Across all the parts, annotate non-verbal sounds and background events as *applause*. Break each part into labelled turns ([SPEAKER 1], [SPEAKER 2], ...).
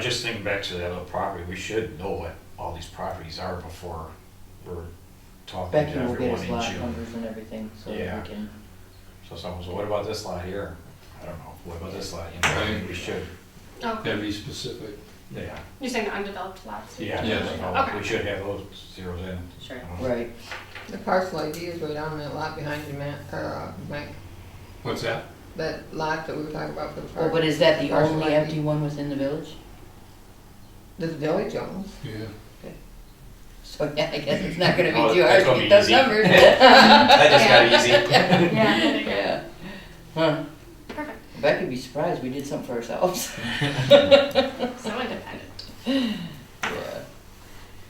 [SPEAKER 1] just thinking back to that other property, we should know what all these properties are before we're talking
[SPEAKER 2] Becky
[SPEAKER 1] to
[SPEAKER 2] will get
[SPEAKER 1] everyone
[SPEAKER 2] us
[SPEAKER 1] in
[SPEAKER 2] lot
[SPEAKER 1] June.
[SPEAKER 2] numbers and everything, so we
[SPEAKER 1] Yeah.
[SPEAKER 2] can,
[SPEAKER 1] So someone's, what about this lot here? I don't know, what about this lot, you know,
[SPEAKER 3] Right.
[SPEAKER 1] we should,
[SPEAKER 3] Gotta
[SPEAKER 4] Oh, Okay,
[SPEAKER 3] be specific.
[SPEAKER 1] yeah,
[SPEAKER 4] you're saying undeveloped lots?
[SPEAKER 1] yeah,
[SPEAKER 3] Yes.
[SPEAKER 1] you know,
[SPEAKER 4] Okay.
[SPEAKER 1] we should have those zeros in.
[SPEAKER 4] Sure.
[SPEAKER 2] right,
[SPEAKER 5] The parcel ID is right on that lot behind you, Matt, or, uh, Mike,
[SPEAKER 3] What's that?
[SPEAKER 5] that lot that we were talking about for the
[SPEAKER 2] oh,
[SPEAKER 5] park.
[SPEAKER 2] but is that the
[SPEAKER 5] Parcel
[SPEAKER 2] only
[SPEAKER 5] ID.
[SPEAKER 2] empty one within the village?
[SPEAKER 5] The village owns.
[SPEAKER 3] Yeah.
[SPEAKER 2] So, *laughs* yeah, I guess it's not gonna
[SPEAKER 1] Oh,
[SPEAKER 2] be too hard
[SPEAKER 1] that's
[SPEAKER 2] to
[SPEAKER 1] gonna
[SPEAKER 2] get
[SPEAKER 1] be
[SPEAKER 2] those
[SPEAKER 1] easy.
[SPEAKER 2] numbers.
[SPEAKER 1] *laughs* That just got easy.
[SPEAKER 4] Yeah, there you go.
[SPEAKER 2] Yeah. Huh,
[SPEAKER 4] Perfect,
[SPEAKER 2] Becky'd be surprised, we did something for ourselves. *laughs*
[SPEAKER 4] *laughs* so independent.
[SPEAKER 2] Yeah.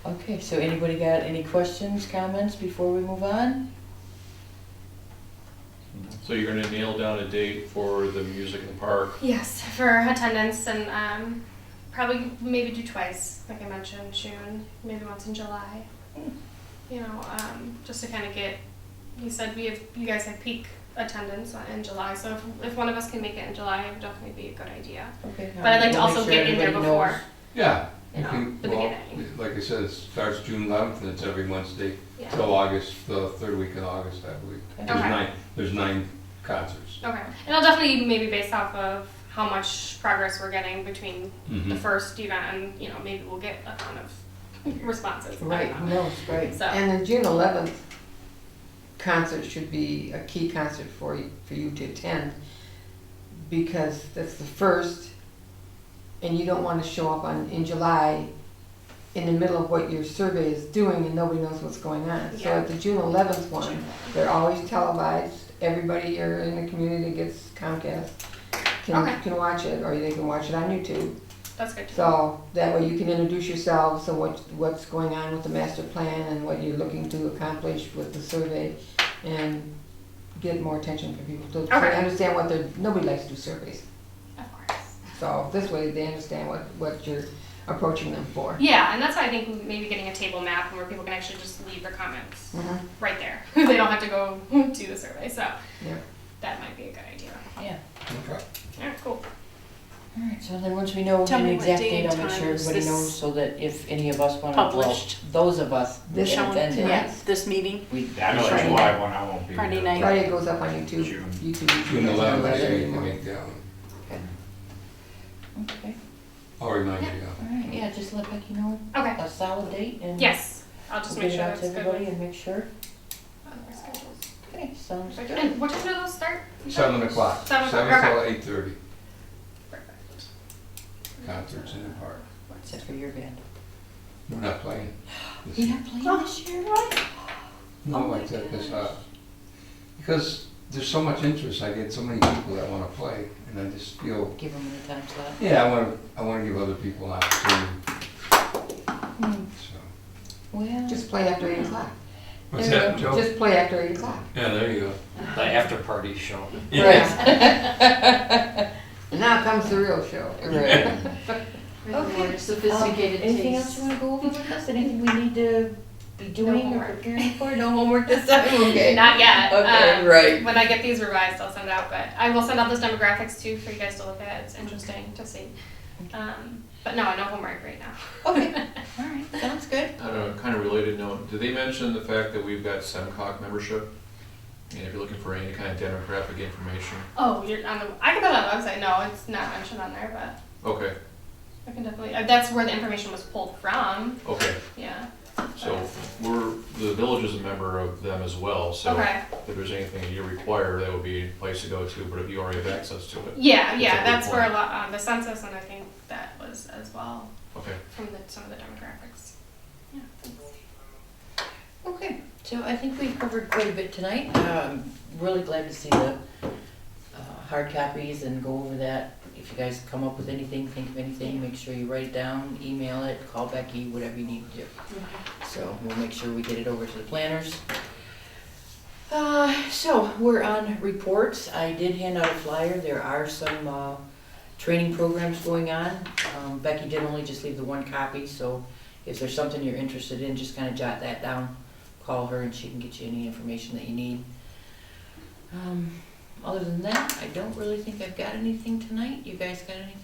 [SPEAKER 2] Okay, so anybody got any questions, comments before we move on?
[SPEAKER 6] So you're gonna nail down a date for the music in the park?
[SPEAKER 4] Yes, for attendance and um, probably maybe do twice, like I mentioned, June, maybe once in July. You know, um, just to kind of get. You said we have you guys have peak attendance in July, so if, if one of us can make it in July, it would definitely be a good idea.
[SPEAKER 2] Okay. um,
[SPEAKER 4] But I'd like to
[SPEAKER 2] we'll
[SPEAKER 4] also
[SPEAKER 2] make sure
[SPEAKER 4] get in there
[SPEAKER 2] everybody
[SPEAKER 4] before.
[SPEAKER 2] knows.
[SPEAKER 3] Yeah.
[SPEAKER 4] You
[SPEAKER 3] you
[SPEAKER 4] know,
[SPEAKER 3] can-
[SPEAKER 4] the
[SPEAKER 3] well,
[SPEAKER 4] beginning.
[SPEAKER 3] Like I said, it starts June eleventh and it's every Wednesday
[SPEAKER 4] Yeah.
[SPEAKER 3] till August, the third week of August, I believe.
[SPEAKER 2] Okay.
[SPEAKER 3] There's
[SPEAKER 4] Okay.
[SPEAKER 3] nine, there's nine concerts.
[SPEAKER 4] Okay, and I'll definitely maybe base off of how much progress we're getting between the
[SPEAKER 3] Mhm.
[SPEAKER 4] first event, and you know, maybe we'll get a ton of *laughs* responses. I
[SPEAKER 2] Right,
[SPEAKER 4] don't
[SPEAKER 2] who
[SPEAKER 4] know.
[SPEAKER 2] knows, right.
[SPEAKER 4] So.
[SPEAKER 5] And the June eleventh concert should be a key concert for you, for you to attend, because that's the first, and you don't wanna show up on, in July, in the middle of what your survey is doing, and nobody knows what's going on. So
[SPEAKER 4] Yeah.
[SPEAKER 5] at the June eleventh one, they're always televised, everybody here in the community that gets Comcast
[SPEAKER 4] Okay.
[SPEAKER 5] can, can watch it, or they can watch it on YouTube.
[SPEAKER 4] That's good to know.
[SPEAKER 5] So that way you can introduce yourselves and what, what's going on with the master plan and what you're looking to accomplish with the survey and get more attention from people. So
[SPEAKER 4] Okay.
[SPEAKER 5] they understand what they're, nobody likes to do surveys.
[SPEAKER 4] Of course.
[SPEAKER 5] So this way they understand what, what you're approaching them for.
[SPEAKER 4] Yeah, and that's why I think maybe getting a table map where people can actually just leave their comments
[SPEAKER 5] Mhm.
[SPEAKER 3] Mm-hmm.
[SPEAKER 4] right there. *laughs* they don't have to go do the survey, so
[SPEAKER 5] Yeah.
[SPEAKER 4] that might be a good idea.
[SPEAKER 2] Yeah,
[SPEAKER 3] Okay.
[SPEAKER 4] All right, cool.
[SPEAKER 2] all right, so then once we know
[SPEAKER 7] Tell
[SPEAKER 2] an
[SPEAKER 7] me what
[SPEAKER 2] exact
[SPEAKER 7] day
[SPEAKER 2] date,
[SPEAKER 7] and
[SPEAKER 2] I'll make
[SPEAKER 7] time
[SPEAKER 2] sure
[SPEAKER 7] is
[SPEAKER 2] everybody
[SPEAKER 7] this
[SPEAKER 2] knows so that if any of us wanna, well,
[SPEAKER 7] published?
[SPEAKER 2] those of us that
[SPEAKER 5] This
[SPEAKER 7] Shall we-
[SPEAKER 2] attended,
[SPEAKER 7] yeah,
[SPEAKER 5] Yes.
[SPEAKER 7] This meeting?
[SPEAKER 2] we.
[SPEAKER 1] Yeah,
[SPEAKER 2] *laughs*
[SPEAKER 1] I know
[SPEAKER 2] Friday
[SPEAKER 1] that's
[SPEAKER 2] night.
[SPEAKER 1] July one, I won't be here.
[SPEAKER 7] Friday night.
[SPEAKER 5] Friday it goes up on YouTube.
[SPEAKER 1] June.
[SPEAKER 5] YouTube.
[SPEAKER 3] June eleventh,
[SPEAKER 5] Whether
[SPEAKER 3] so you
[SPEAKER 5] you
[SPEAKER 3] can
[SPEAKER 5] want-
[SPEAKER 3] make that one.
[SPEAKER 2] Okay,
[SPEAKER 3] I'll remind you. yeah.
[SPEAKER 2] all right, yeah, just let Becky know
[SPEAKER 4] Okay.
[SPEAKER 2] a solid date and.
[SPEAKER 4] Yes, I'll just
[SPEAKER 2] we'll
[SPEAKER 4] make
[SPEAKER 2] get it
[SPEAKER 4] sure
[SPEAKER 2] out
[SPEAKER 4] that's
[SPEAKER 2] to
[SPEAKER 4] good.
[SPEAKER 2] everybody
[SPEAKER 4] with
[SPEAKER 2] and make sure.
[SPEAKER 4] other schedules.
[SPEAKER 2] Okay, sounds good.
[SPEAKER 4] And what time do those start? You said?
[SPEAKER 3] Seven o'clock,
[SPEAKER 4] Seven
[SPEAKER 3] seven
[SPEAKER 4] o'clock,
[SPEAKER 3] till eight thirty,
[SPEAKER 4] Perfect.
[SPEAKER 3] concerts in the park.
[SPEAKER 2] Except for your band.
[SPEAKER 3] We're not playing. this
[SPEAKER 2] You're not
[SPEAKER 4] Oh.
[SPEAKER 2] playing this year?
[SPEAKER 3] No, I took this out. Because there's so much interest, I get so many people that wanna play, and I just feel,
[SPEAKER 2] Give them the time slot.
[SPEAKER 3] yeah, I wanna, I wanna give other people an opportunity,
[SPEAKER 2] Hmm,
[SPEAKER 3] so.
[SPEAKER 2] Well.
[SPEAKER 5] Just play after eight o'clock.
[SPEAKER 3] What's
[SPEAKER 5] There you
[SPEAKER 3] that,
[SPEAKER 5] go.
[SPEAKER 3] Joe?
[SPEAKER 5] Just play after eight o'clock.
[SPEAKER 3] Yeah, there you go.
[SPEAKER 1] The after party show.
[SPEAKER 2] Right. *laughs*
[SPEAKER 5] And now comes the real show.
[SPEAKER 2] Right.
[SPEAKER 7] Okay.
[SPEAKER 2] Sophisticated um, Anything else you wanna go over
[SPEAKER 4] *laughs*
[SPEAKER 2] with us? Anything we need to be doing or
[SPEAKER 4] homework.
[SPEAKER 2] preparing
[SPEAKER 4] *laughs*
[SPEAKER 2] for? No *laughs* homework this time? Okay.
[SPEAKER 4] Not yet.
[SPEAKER 2] Okay,
[SPEAKER 4] Um,
[SPEAKER 2] right.
[SPEAKER 4] When I get these revised, I'll send out, but I will send out those demographics too for you guys to look at. It's interesting to see. Um, but no, no homework right now.
[SPEAKER 2] Okay. All right, sounds good.
[SPEAKER 6] On a kind of related note, did they mention the fact that we've got SEMCOG membership? And if you're looking for any kind of demographic information,
[SPEAKER 4] *laughs* oh, you're on the. I can put it on the website. No, it's not mentioned on there, but
[SPEAKER 6] okay,
[SPEAKER 4] I can definitely. Uh, that's where the information was pulled from.
[SPEAKER 6] okay.
[SPEAKER 4] Yeah.
[SPEAKER 6] So we're, the village is a member of them as well, so
[SPEAKER 4] okay.
[SPEAKER 6] if there's anything that you require, that would be a place to go to, but if you already have access to it,
[SPEAKER 4] Yeah,
[SPEAKER 6] That's a
[SPEAKER 4] yeah.
[SPEAKER 6] good
[SPEAKER 4] That's where a
[SPEAKER 6] point.
[SPEAKER 4] lot um, the census and I think that was as well
[SPEAKER 6] okay.
[SPEAKER 4] from the, some of the demographics. Yeah. thanks.
[SPEAKER 2] Okay, so I think we covered quite a bit tonight. Um, really glad to see the uh, hard copies and go over that. If you guys come up with anything, think of anything, make sure you write it down, email it, call Becky, whatever you need to do. So we'll make sure we get it over to the planners. Uh, so we're on reports. I did hand out a flyer. There are some, uh, training programs going on. Um, Becky did only just leave the one copy, so if there's something you're interested in, just kind of jot that down. Call her and she can get you any information that you need. Um, other than that, I don't really think I've got anything tonight. You guys got anything?